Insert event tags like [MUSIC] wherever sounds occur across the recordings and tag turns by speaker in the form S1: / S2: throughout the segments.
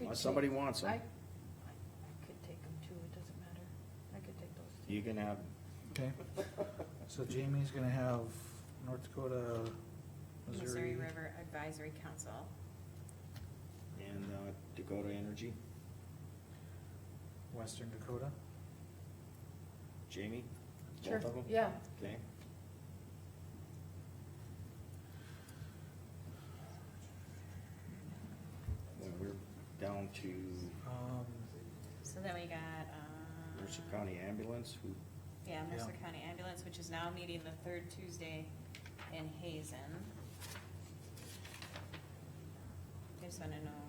S1: if somebody wants
S2: I, I
S1: them,
S2: could take them too, it doesn't matter. I could take those two.
S1: you can have,
S3: Okay, so Jamie's gonna have North Dakota,
S4: Missouri
S3: Missouri.
S4: River Advisory Council.
S1: and uh, Dakota Energy,
S3: Western Dakota.
S1: Jamie, both
S2: Sure,
S1: of them?
S2: yeah.
S1: Okay, well, we're down to
S3: Um,
S4: So then we got, um.
S1: Mercer County Ambulance, who,
S4: Yeah, Mercer
S3: Yeah.
S4: County Ambulance, which is now meeting the third Tuesday in Hazen. I just wanna know,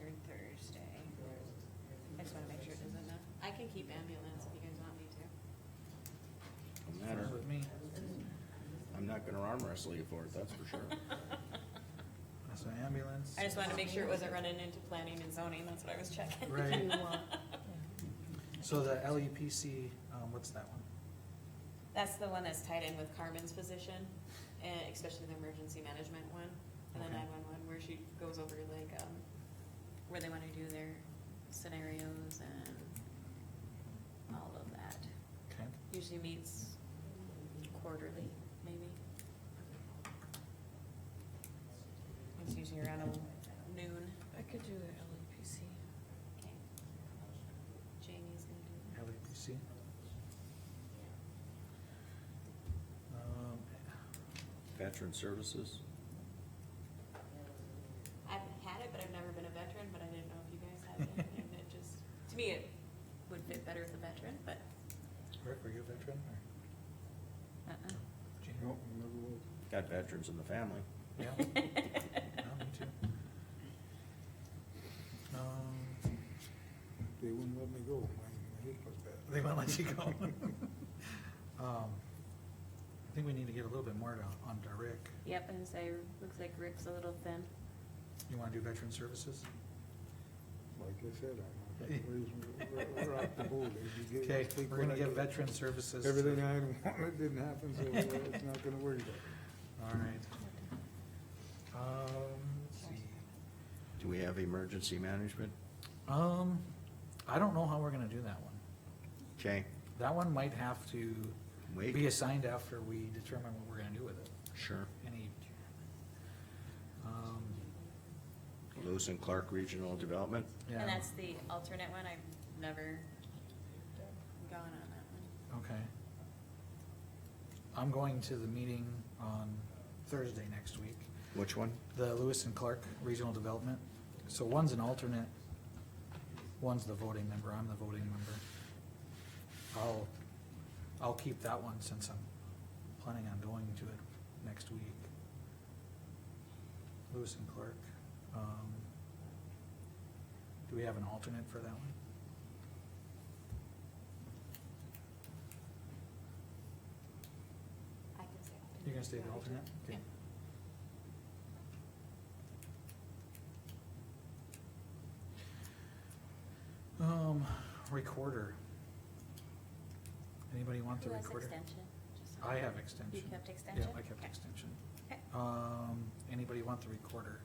S4: third Thursday. I just wanna make sure it doesn't, uh, I can keep ambulance if you guys want me to.
S1: no matter,
S3: fine with me,
S1: I'm not gonna arm wrestle you for it, that's
S2: [LAUGHS]
S1: for sure.
S3: that's an ambulance.
S4: [LAUGHS] I just wanted to make sure it wasn't running into planning and zoning, that's what I was checking. [LAUGHS]
S2: Do
S3: Right.
S2: you
S3: [LAUGHS]
S2: want-
S3: So the LEPC, um, what's that one?
S4: That's the one that's tied in with Carmen's position, and especially the emergency management one, and the
S3: Okay.
S4: nine-one-one, where she goes over like, um, where they wanna do their scenarios and all of that.
S3: Okay,
S4: Usually meets quarterly, maybe. It's usually around noon.
S2: I could do the LEPC.
S4: Okay. Jamie's gonna do that.
S3: LEPC. Um,
S1: Veteran Services,
S4: I've had it, but I've never been a veteran, but I didn't know if you guys had it, and it just, to me, it would fit better with a veteran, but.
S3: Rick, were you a veteran or?
S4: uh-uh.
S3: Jamie?
S1: got veterans in the family.
S4: [LAUGHS]
S3: Yeah. No, me too. Um,
S5: They wouldn't let me go, my, my hip was bad.
S3: They won't let you go. [LAUGHS] Um, I think we need to get a little bit more to, on to Rick.
S4: Yep, and so looks like Rick's a little thin.
S3: You wanna do veteran services?
S5: [LAUGHS] Like I said, I'm, not gonna raise me- we're, we're off the boat. If you give-
S3: Okay,
S5: take
S3: we're gonna
S5: what I
S3: get
S5: get.
S3: veteran services. to-
S5: Everything I had wanted didn't happen, so uh, it's not gonna worry about
S3: All right. Um, let's see.
S1: Do we have emergency management?
S3: Um, I don't know how we're gonna do that one.
S1: Okay,
S3: That one might have to be
S1: wait,
S3: assigned after we determine what we're gonna do with it.
S1: sure.
S3: Any. Um,
S1: Lewis and Clark Regional Development,
S3: yeah.
S4: And that's the alternate one, I've never gone on that one.
S3: Okay. I'm going to the meeting on Thursday next week,
S1: which one?
S3: the Lewis and Clark Regional Development. So one's an alternate, one's the voting member, I'm the voting member. I'll, I'll keep that one since I'm planning on going to it next week. Lewis and Clark. um, Do we have an alternate for that one?
S4: I can stay alternate.
S3: You're gonna stay the alternate? Okay. Um, recorder. Anybody want the
S4: Who has
S3: recorder?
S4: extension? Just-
S3: I have extension.
S4: You kept extension?
S3: Yeah, I kept
S4: Okay.
S3: extension.
S4: Okay.
S3: Um, anybody want the recorder?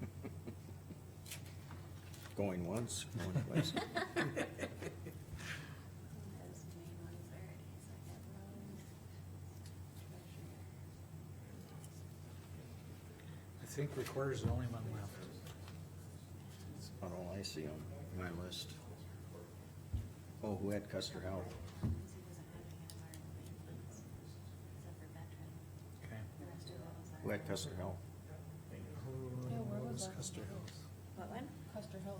S1: [LAUGHS] Going once, going twice.
S4: Those main ones are second row, treasurer.
S3: I think recorder's the only one left.
S1: Not all I see on my list. Oh, who had Custer Health?
S4: Competency doesn't have any of our
S3: Okay.
S4: main ones, except for veteran. The rest of those are-
S1: Who had Custer Health?
S3: Who
S2: Yeah, where was
S3: was
S2: that?
S3: Custer Hills?
S4: What one?
S2: Custer Hill.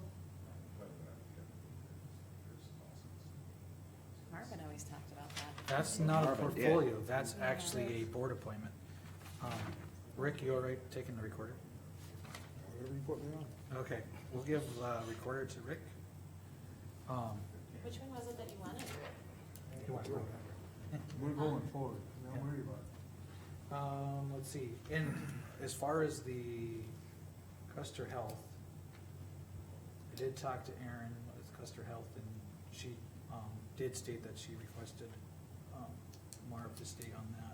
S4: Marvin always talked about that.
S3: That's not a
S1: Marvin did.
S3: portfolio, that's actually a board appointment. Um, Rick, you all right taking the recorder?
S5: it. Whatever you put me on.
S3: Okay, we'll give uh, recorder to Rick. Um,
S4: Which one was it that you wanted?
S3: you want to-
S5: We're going forward, don't worry about
S3: Um, let's see, and as far as the Custer Health, I did talk to Erin with Custer Health, and she, um, did state that she requested, um, Marv to stay on that.